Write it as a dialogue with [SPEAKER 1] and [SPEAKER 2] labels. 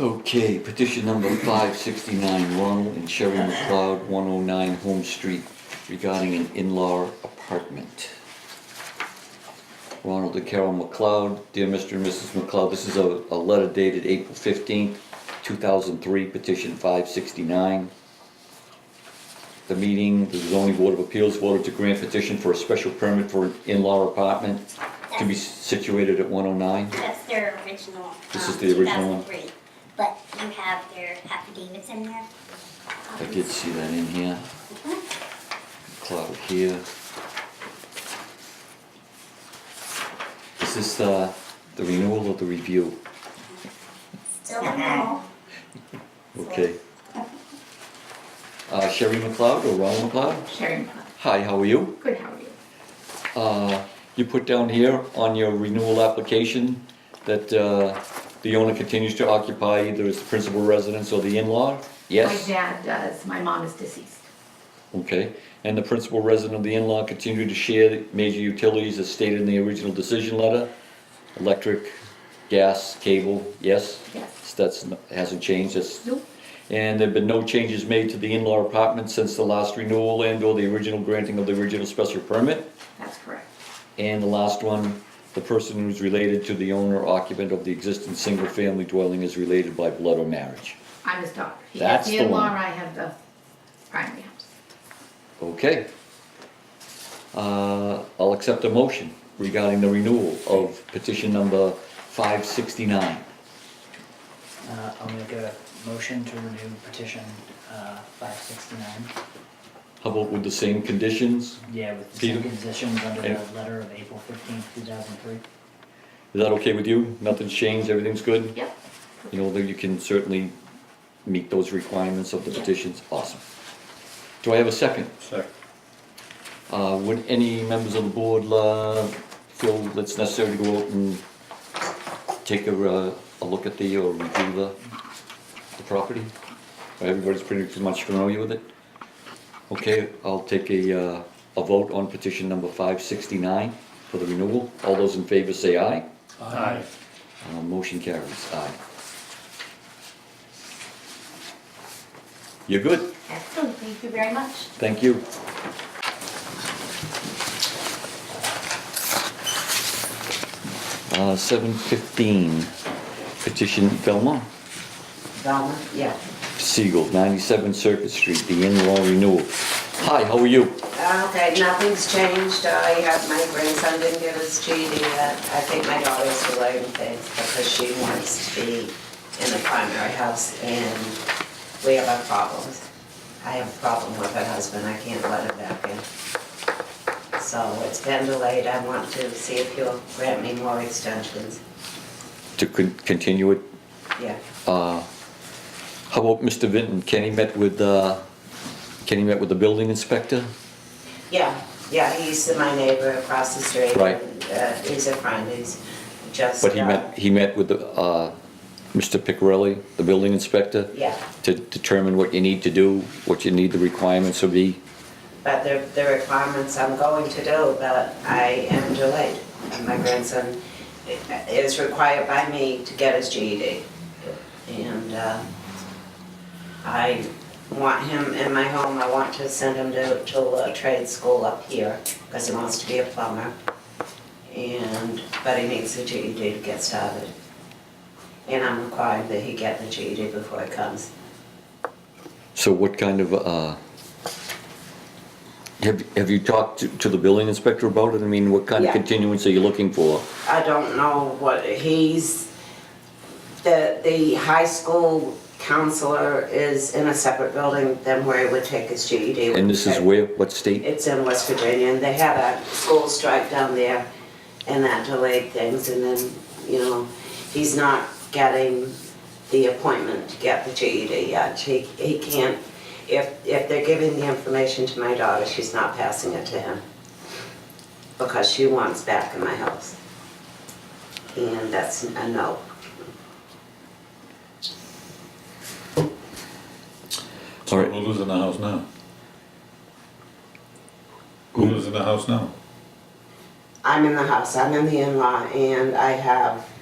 [SPEAKER 1] Okay, petition number five sixty-nine, Ronald and Sherry McLeod, one oh nine Home Street, regarding an in-law apartment. Ronald and Carol McLeod, dear Mr. and Mrs. McLeod, this is a, a letter dated April fifteenth, two thousand three, petition five sixty-nine. The meeting, the zoning board of appeals voted to grant petition for a special permit for an in-law apartment to be situated at one oh nine.
[SPEAKER 2] That's their original.
[SPEAKER 1] This is
[SPEAKER 2] um,
[SPEAKER 1] the original one?
[SPEAKER 2] 2003. But you have their affidavits in there.
[SPEAKER 1] I did see that in here. Cloud here. Is this uh, the renewal or the review?
[SPEAKER 2] Still don't know.
[SPEAKER 1] Okay. Uh, Sherry McLeod or Ron McLeod?
[SPEAKER 3] Sharon,
[SPEAKER 1] Hi, how are you?
[SPEAKER 3] good, how are you?
[SPEAKER 1] Uh, you put down here on your renewal application that uh, the owner continues to occupy either as the principal residence or the in-law? Yes?
[SPEAKER 3] My dad does, my mom is deceased.
[SPEAKER 1] Okay, and the principal resident of the in-law continue to share major utilities as stated in the original decision letter? Electric, gas, cable, yes?
[SPEAKER 3] Yes.
[SPEAKER 1] That's, n- hasn't changed, that's,
[SPEAKER 3] Nope,
[SPEAKER 1] and there've been no changes made to the in-law apartment since the last renewal and or the original granting of the original special permit?
[SPEAKER 3] that's correct.
[SPEAKER 1] And the last one, the person who's related to the owner occupant of the existing single-family dwelling is related by blood or marriage?
[SPEAKER 3] I'm his daughter. He
[SPEAKER 1] That's
[SPEAKER 3] has
[SPEAKER 1] the
[SPEAKER 3] the in-law,
[SPEAKER 1] one.
[SPEAKER 3] I have the primary house.
[SPEAKER 1] Okay. Uh, I'll accept a motion regarding the renewal of petition number 569.
[SPEAKER 4] Uh, I'll make a motion to renew petition, uh, five sixty-nine.
[SPEAKER 1] How about with the same conditions?
[SPEAKER 4] Yeah, with the same
[SPEAKER 1] Peter?
[SPEAKER 4] conditions under the
[SPEAKER 1] Yeah.
[SPEAKER 4] letter of April fifteenth, two thousand three.
[SPEAKER 1] Is that okay with you? Nothing's changed, everything's good?
[SPEAKER 3] Yep,
[SPEAKER 1] You know, that you can certainly meet those requirements of the
[SPEAKER 3] Yeah.
[SPEAKER 1] petitions? Awesome. Do I have a second?
[SPEAKER 5] Second.
[SPEAKER 1] Uh, Would any members of the board uh, feel it's necessary to go out and take a, uh, a look at the, or review the, the property? Everybody's pretty much familiar with it? Okay, I'll take a, uh, a vote on petition number 569 for the renewal. All those in favor say aye.
[SPEAKER 5] Aye.
[SPEAKER 1] Uh, Motion carries, aye. You're good,
[SPEAKER 3] excellent, thank you very much.
[SPEAKER 1] thank you. Uh, 715, petition Velma
[SPEAKER 6] Velma, yeah.
[SPEAKER 1] Siegel, 97 Circuit Street, the in-law renewal. Hi, how are you?
[SPEAKER 6] Okay, nothing's changed. I have, my grandson didn't give his GED yet. I think my daughter's delaying things because she wants to be in the primary house and we have our problems. I have a problem with her husband. I can't let her back in. So it's been delayed. I want to see if you'll grant me more extensions.
[SPEAKER 1] To con- continue it,
[SPEAKER 6] Yeah.
[SPEAKER 1] uh, how about Mr. Vinton? Kenny met with, uh, Kenny met with the building inspector?
[SPEAKER 6] Yeah, yeah, he's my neighbor across the street.
[SPEAKER 1] Right.
[SPEAKER 6] Uh, He's a friend. He's just.
[SPEAKER 1] But he
[SPEAKER 6] uh,
[SPEAKER 1] met, he met with the, uh, Mr. Picarelli, the building inspector?
[SPEAKER 6] Yeah.
[SPEAKER 1] To determine what you need to do, what you need the requirements to be?
[SPEAKER 6] But the, the requirements I'm going to do, but I am delayed. And my grandson i- is required by me to get his GED. And uh, I want him in my home, I want to send him to, to a trade school up here, because he wants to be a plumber. And, but he needs the GED to get started. And I'm requiring that he get the GED before he comes.
[SPEAKER 1] So what kind of, uh, have, have you talked to, to the building inspector about it? I mean, what kind of
[SPEAKER 6] Yeah.
[SPEAKER 1] continuance are you looking for?
[SPEAKER 6] I don't know what, he's, the, the high school counselor is in a separate building than where he would take his E GED.
[SPEAKER 1] And this is where, what state?
[SPEAKER 6] It's in West Virginia, and they had a school strike down there, and that delayed things, and then, you know, he's not getting the appointment to get the GED yet. He, he can't, if, if they're giving the information to my daughter, she's not passing it to him, because she wants back in my house. And that's a no.
[SPEAKER 1] All
[SPEAKER 5] So
[SPEAKER 1] right.
[SPEAKER 5] who lives in the house now? Who lives in the house now?
[SPEAKER 6] I'm in the house, I'm in the in-law, and I have